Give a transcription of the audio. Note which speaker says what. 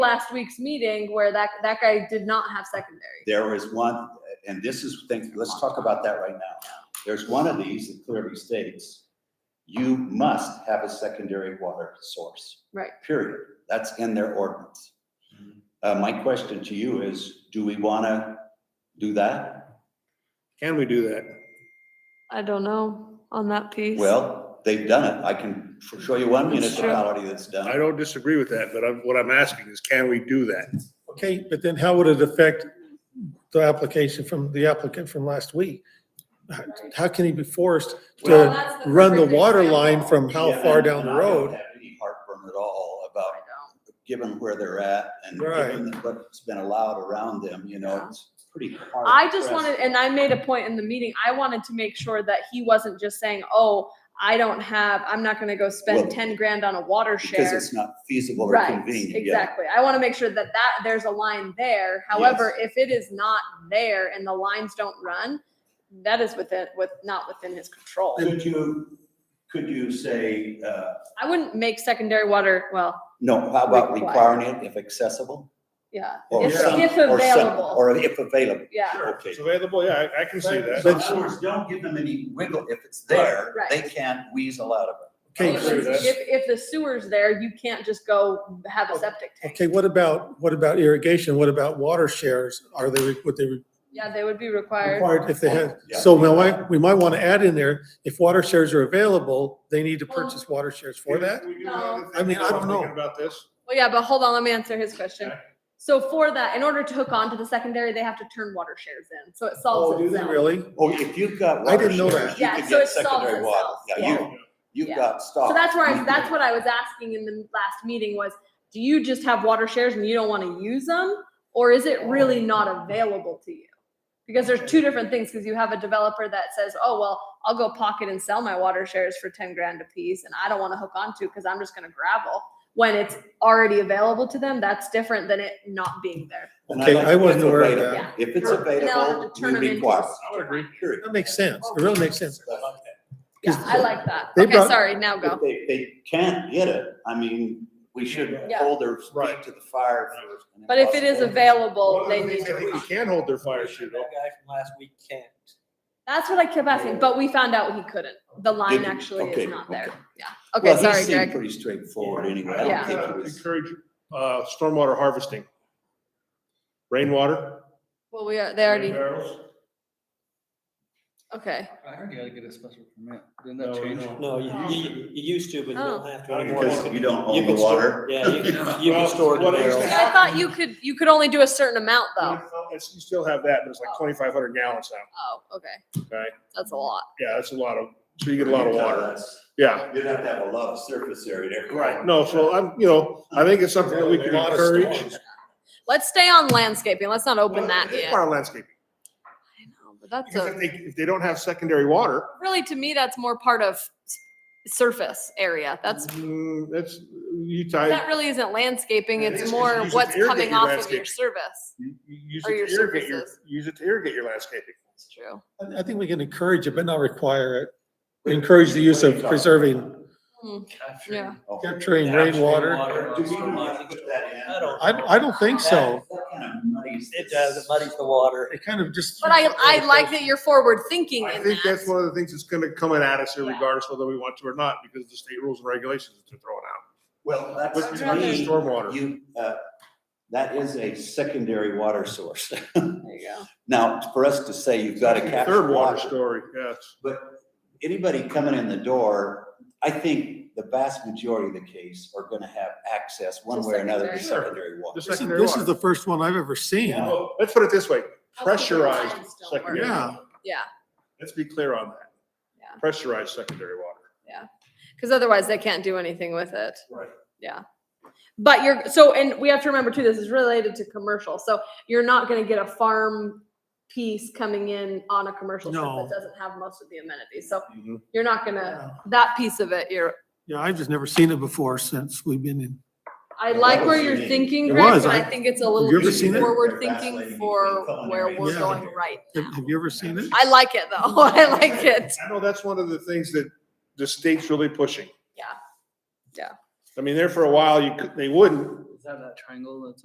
Speaker 1: last week's meeting where that, that guy did not have secondary.
Speaker 2: There is one, and this is, thing, let's talk about that right now. There's one of these that clearly states, you must have a secondary water source.
Speaker 1: Right.
Speaker 2: Period. That's in their ordinance.
Speaker 3: Mm-hmm.
Speaker 2: Uh, my question to you is, do we wanna do that?
Speaker 4: Can we do that?
Speaker 1: I don't know on that piece.
Speaker 2: Well, they've done it. I can show you one
Speaker 1: It's true.
Speaker 2: municipality that's done
Speaker 4: I
Speaker 2: it.
Speaker 4: don't disagree with that, but I'm, what I'm asking is, can we do that?
Speaker 3: Okay, but then how would it affect the application from, the applicant from last week? How- How can he be forced
Speaker 1: Well,
Speaker 3: to
Speaker 1: that's
Speaker 3: run the
Speaker 1: perfect
Speaker 3: water
Speaker 1: example.
Speaker 3: line from how
Speaker 2: Yeah,
Speaker 3: far
Speaker 2: and-
Speaker 3: down
Speaker 2: and
Speaker 3: the
Speaker 2: I don't
Speaker 3: road?
Speaker 2: have Any heartburn at all
Speaker 1: I
Speaker 2: about
Speaker 1: don't.
Speaker 2: given where they're at and
Speaker 3: Right.
Speaker 2: given what's been allowed around them, you know,
Speaker 1: Yeah.
Speaker 2: it's pretty hard.
Speaker 1: I just
Speaker 2: pressed.
Speaker 1: wanted, and I made a point in the meeting, I wanted to make sure that he wasn't just saying, oh, I don't have, I'm not gonna go
Speaker 2: Well,
Speaker 1: spend ten grand on a water
Speaker 2: Because
Speaker 1: share.
Speaker 2: it's not feasible or
Speaker 1: Right,
Speaker 2: convenient, yeah.
Speaker 1: exactly. I wanna make sure that that, there's a line there. However, if it is not there and the lines don't run, that is within, with, not within his control.
Speaker 2: Could you, could you say, uh,
Speaker 1: I wouldn't make secondary water, well,
Speaker 2: no, how about
Speaker 1: Require.
Speaker 2: requiring it if accessible?
Speaker 1: yeah,
Speaker 2: or
Speaker 1: if,
Speaker 2: some-
Speaker 1: if
Speaker 2: or some-
Speaker 1: available,
Speaker 2: Or if available,
Speaker 1: yeah.
Speaker 2: okay.
Speaker 4: available, yeah, I, I can
Speaker 2: So in other words, don't give them any wiggle, if it's there,
Speaker 1: Right.
Speaker 2: they can't weasel out of it.
Speaker 3: Okay,
Speaker 4: I agree with that.
Speaker 1: If, if the sewer's there, you can't just go have a septic tank.
Speaker 3: okay, what about, what about irrigation? What about water shares? Are they, would they
Speaker 1: Yeah, they would be required.
Speaker 3: required if they had?
Speaker 2: Yeah.
Speaker 3: So we might, we might want to add in there, if water shares are available, they need to purchase water shares for that?
Speaker 1: No.
Speaker 3: I mean, I don't know.
Speaker 4: Thinking About this,
Speaker 1: Well, yeah, but hold on, let me answer his question.
Speaker 4: Okay.
Speaker 1: So for that, in order to hook onto the secondary, they have to turn water shares in, so it
Speaker 3: Oh,
Speaker 1: solves
Speaker 3: do they
Speaker 1: itself.
Speaker 3: really?
Speaker 2: Oh, if you've got
Speaker 3: I
Speaker 2: water
Speaker 3: didn't know
Speaker 2: shares,
Speaker 3: that.
Speaker 2: you
Speaker 1: Yeah,
Speaker 2: could
Speaker 1: so
Speaker 2: get
Speaker 1: it solves
Speaker 2: secondary water.
Speaker 1: itself,
Speaker 2: Yeah, you,
Speaker 1: Yeah.
Speaker 2: you've got stock.
Speaker 1: So that's where
Speaker 3: Oh.
Speaker 1: I, that's what I was asking in the last meeting was, do you just have water shares and you don't want to use them? Or is it really
Speaker 3: Oh.
Speaker 1: not available to you? Because there's two different things, because you have a developer that says, oh, well, I'll go pocket and sell my water shares for ten grand a piece and I don't want to hook onto because I'm just gonna gravel. When it's already available to them, that's different than it not being there.
Speaker 2: And
Speaker 3: Okay,
Speaker 2: like
Speaker 3: I
Speaker 2: if
Speaker 3: wasn't aware of
Speaker 2: available-
Speaker 1: that.
Speaker 2: If it's
Speaker 1: Now they
Speaker 2: available,
Speaker 1: have to turn
Speaker 2: we
Speaker 1: them into
Speaker 2: require.
Speaker 1: s-
Speaker 4: I would agree.
Speaker 2: Period.
Speaker 3: That makes sense. It really makes sense.
Speaker 1: Yeah,
Speaker 3: 'Cause
Speaker 1: I like that.
Speaker 3: they
Speaker 1: Okay,
Speaker 3: brought-
Speaker 1: sorry, now
Speaker 2: If
Speaker 1: go.
Speaker 2: they, they can't get it, I mean, we should
Speaker 1: Yeah.
Speaker 2: hold their feet
Speaker 4: Right.
Speaker 2: to the fire. first.
Speaker 1: But if it is available,
Speaker 4: One
Speaker 1: they
Speaker 4: of the
Speaker 1: need
Speaker 4: things
Speaker 1: to.
Speaker 4: I think
Speaker 1: hook
Speaker 4: we
Speaker 1: on.
Speaker 4: can hold their fire shoot
Speaker 5: That
Speaker 4: off.
Speaker 5: guy from last week can't.
Speaker 1: That's what I kept asking, but we found out he couldn't. The line
Speaker 2: Did you?
Speaker 1: actually
Speaker 2: Okay,
Speaker 1: is not there.
Speaker 2: okay.
Speaker 1: Yeah. Okay,
Speaker 2: Well, he
Speaker 1: sorry,
Speaker 2: seemed
Speaker 1: Greg.
Speaker 2: pretty straightforward anyway. I
Speaker 1: Yeah.
Speaker 2: don't think it was,
Speaker 4: Encourage, uh, stormwater harvesting. Rainwater.
Speaker 1: Well, we are, they already,
Speaker 4: barrels.
Speaker 1: okay.
Speaker 6: I heard you had to get a special permit. Didn't
Speaker 4: No,
Speaker 6: that
Speaker 4: no.
Speaker 6: change?
Speaker 5: No, you, you, you used to, but you don't have to
Speaker 4: Oh.
Speaker 5: anymore.
Speaker 2: because you don't
Speaker 5: You
Speaker 2: own the
Speaker 5: can store-
Speaker 2: water.
Speaker 5: Yeah, you can, you can
Speaker 4: Well,
Speaker 5: store it in
Speaker 4: what I used to
Speaker 5: barrels.
Speaker 1: I thought you could, you could only do a certain amount though.
Speaker 4: Well, it's- You still have that, but it's like twenty-five hundred gallons now.
Speaker 1: Oh, okay.
Speaker 4: Right.
Speaker 1: That's a lot.
Speaker 4: Yeah, that's a lot of, so you get a lot of water.
Speaker 2: That's-
Speaker 4: Yeah.
Speaker 2: You'd have to have a lot of surface area there.
Speaker 4: Right. No, so I'm, you know, I think it's something that we can
Speaker 3: Lot of
Speaker 4: encourage.
Speaker 3: storms.
Speaker 1: Let's stay on landscaping. Let's not open that
Speaker 4: It's
Speaker 1: yet. I
Speaker 4: part of landscaping.
Speaker 1: know, But that's
Speaker 4: Because
Speaker 1: a,
Speaker 4: if they, if they don't have secondary water.
Speaker 1: really to me, that's more part of s- surface area. That's,
Speaker 4: Mm, That's, you
Speaker 1: that
Speaker 4: tie,
Speaker 1: really isn't landscaping.
Speaker 4: It is,
Speaker 1: It's
Speaker 4: 'cause you
Speaker 1: more
Speaker 4: use it to
Speaker 1: what's
Speaker 4: irrigate
Speaker 1: coming
Speaker 4: your
Speaker 1: off of your
Speaker 4: landscape.
Speaker 1: service.
Speaker 4: you you use
Speaker 1: Or your
Speaker 4: it to irrigate your,
Speaker 1: surfaces.
Speaker 4: use it to irrigate your landscaping.
Speaker 1: That's true.
Speaker 3: I- I think we can encourage it, but not require it. Encourage the use of preserving,
Speaker 1: Yeah.
Speaker 2: Okay.
Speaker 3: capturing rainwater.
Speaker 5: Water,
Speaker 2: Do we want to
Speaker 5: stormwater.
Speaker 2: put that in?
Speaker 5: I don't-
Speaker 3: I, I don't think so.
Speaker 2: That kind of muddies
Speaker 5: It
Speaker 2: this.
Speaker 5: does, it muddies the water.
Speaker 3: It kind of just.
Speaker 1: But I, I like that you're forward thinking
Speaker 4: I
Speaker 1: in
Speaker 4: think that's
Speaker 1: that.
Speaker 4: one of the things that's gonna come at us here
Speaker 1: Yeah.
Speaker 4: regardless whether we want to or not, because the state rules and regulations that they're throwing out.
Speaker 2: Well,
Speaker 4: But
Speaker 2: that's
Speaker 4: to me, stormwater.
Speaker 2: You, uh, that is a secondary water source.
Speaker 1: There you go.
Speaker 2: Now, for us to say you've got to capture
Speaker 4: Third water
Speaker 2: water,
Speaker 4: story, yes.
Speaker 2: anybody coming in the door, I think the vast majority of the case are gonna have access one
Speaker 1: To
Speaker 2: way or another to
Speaker 4: secondary.
Speaker 2: secondary water.
Speaker 4: Just
Speaker 3: This is-
Speaker 4: secondary
Speaker 3: this
Speaker 4: water.
Speaker 3: is the first one I've ever seen.
Speaker 2: Yeah.
Speaker 4: Well, Let's put it this way,
Speaker 1: That's the lines
Speaker 4: pressurized
Speaker 1: don't work.
Speaker 4: secondary.
Speaker 3: Yeah.
Speaker 4: water.
Speaker 1: Yeah.
Speaker 4: Let's be clear on that.
Speaker 1: Yeah.
Speaker 4: Pressurized secondary water.
Speaker 1: Because otherwise they can't do anything with it.
Speaker 4: Right.
Speaker 1: Yeah. But you're, so, and we have to remember too, this is related to commercial. So you're not gonna get a farm piece coming in on a commercial strip
Speaker 3: No.
Speaker 1: that doesn't have most of the amenities. So
Speaker 2: Mm-hmm.
Speaker 4: Mhm.
Speaker 1: you're not gonna, that piece of it, you're,
Speaker 3: Yeah, I've just never seen it before since we've been in.
Speaker 1: I
Speaker 2: It
Speaker 1: like where
Speaker 2: was
Speaker 1: you're
Speaker 2: unique.
Speaker 1: thinking,
Speaker 3: It
Speaker 1: Greg,
Speaker 3: was,
Speaker 1: but I
Speaker 3: I-
Speaker 1: think it's a
Speaker 3: you
Speaker 1: little
Speaker 3: ever
Speaker 1: too
Speaker 3: seen it?
Speaker 1: forward
Speaker 2: They're
Speaker 1: thinking
Speaker 2: vacillating
Speaker 1: for
Speaker 2: between culinary
Speaker 1: where we're
Speaker 3: and
Speaker 1: going
Speaker 2: secondary.
Speaker 1: right
Speaker 3: Have have you ever seen it?
Speaker 1: I like it though. I like it.
Speaker 4: I know that's one of the things that the state's really pushing.
Speaker 1: Yeah. Yeah.
Speaker 4: I mean, there for a while, you could, they wouldn't,
Speaker 5: Is that that triangle that's